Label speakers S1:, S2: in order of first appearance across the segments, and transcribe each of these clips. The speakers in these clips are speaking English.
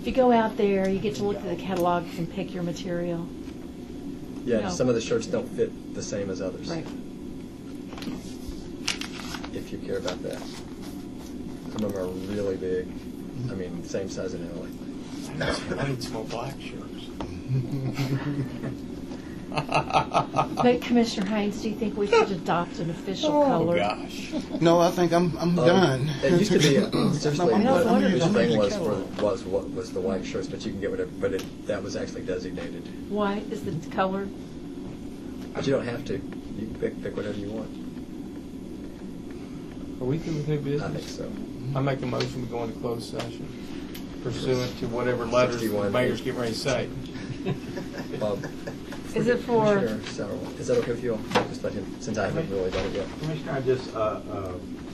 S1: If you go out there, you get to look at the catalogs and pick your material.
S2: Yeah,
S1: No.
S2: some of the shirts don't fit the same as others.
S1: Right.
S2: If you care about that. Some of them are really big.
S3: Mm-hmm.
S2: I mean, same size in Italy.
S4: I need small black shirts.
S1: But Commissioner Haynes, do you think we should adopt an official color?
S4: gosh.
S3: No, I think I'm, I'm
S2: Um,
S3: done.
S2: It used to be uh, seriously
S3: I'm
S1: not
S2: what the
S1: wondering if
S3: it's
S2: thing
S3: a
S2: was for,
S3: catalog.
S2: was what was the white shirts, but you can get whatever. But it, that was actually designated.
S1: White is the color.
S2: But you don't have to. You can pick pick whatever you want.
S4: Are we through with new
S2: I think
S4: business?
S2: so.
S4: I make a motion to go into closed session pursuant to whatever letters the
S2: 61.
S4: mayor's getting ready to say.
S2: Bob.
S1: Is it for-
S2: Commissioner Sauerland, Is that okay with you all? Just let him, since I haven't really done it yet.
S5: Commissioner, I just, uh, uh,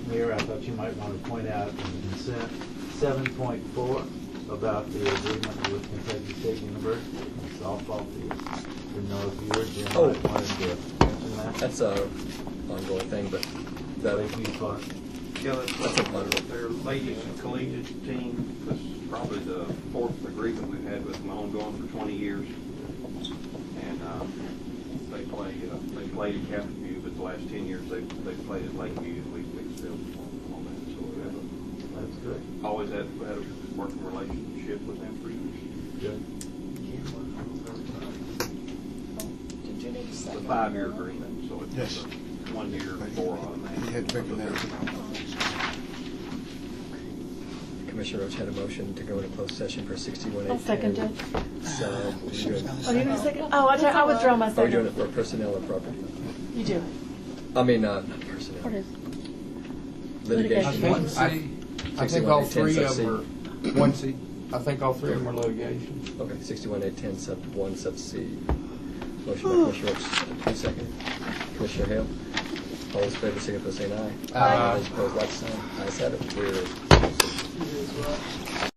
S5: Mayor, I thought you might want to point out in consent seven point four about the agreement with Kentucky State University in softball fields. Didn't know if you or Jim might
S2: Oh.
S5: wanted to mention that.
S2: That's a ongoing thing, but
S5: Thank
S2: that,
S5: you, Clark.
S6: Yeah, that's
S2: That's a bundle.
S6: Their ladies and collegiate team, this is probably the fourth agreement we've had with them ongoing for twenty years. And, um, they play, uh, they played at Captain View, but the last ten years, they, they've played at Lakeview and Lee Wicksville on on that. So we have
S5: That's good.
S6: a- always had, had a working relationship with them for years.
S5: Good.
S7: Did you need a
S6: It's
S7: second?
S6: a five-year agreement, so it's
S3: Yes.
S6: a one-year four on that.
S3: You had bigger than that.
S2: Commissioner Roach had a motion to go into closed session for sixty-one eight.
S1: I'll second it.
S2: So, you're doing-
S1: Oh, you need a second? Oh, I, I withdraw my
S2: are we doing it
S1: second.
S2: for personnel or property?
S1: You do.
S2: I mean, uh, not personnel.
S7: What is-
S4: I
S2: Litigation.
S7: Litigation.
S4: think, I, I think all
S2: 61,
S4: three
S2: 10,
S4: of
S2: sub
S4: them are, one seat, I think all three of them are litigation.
S2: Okay, sixty-one eight ten sub one sub C. Motion by Commissioner Roach, two second. Commissioner Hale, all those in favor, signify by saying aye.
S4: Aye.
S2: All those opposed, like sign. Ayes have it, we're.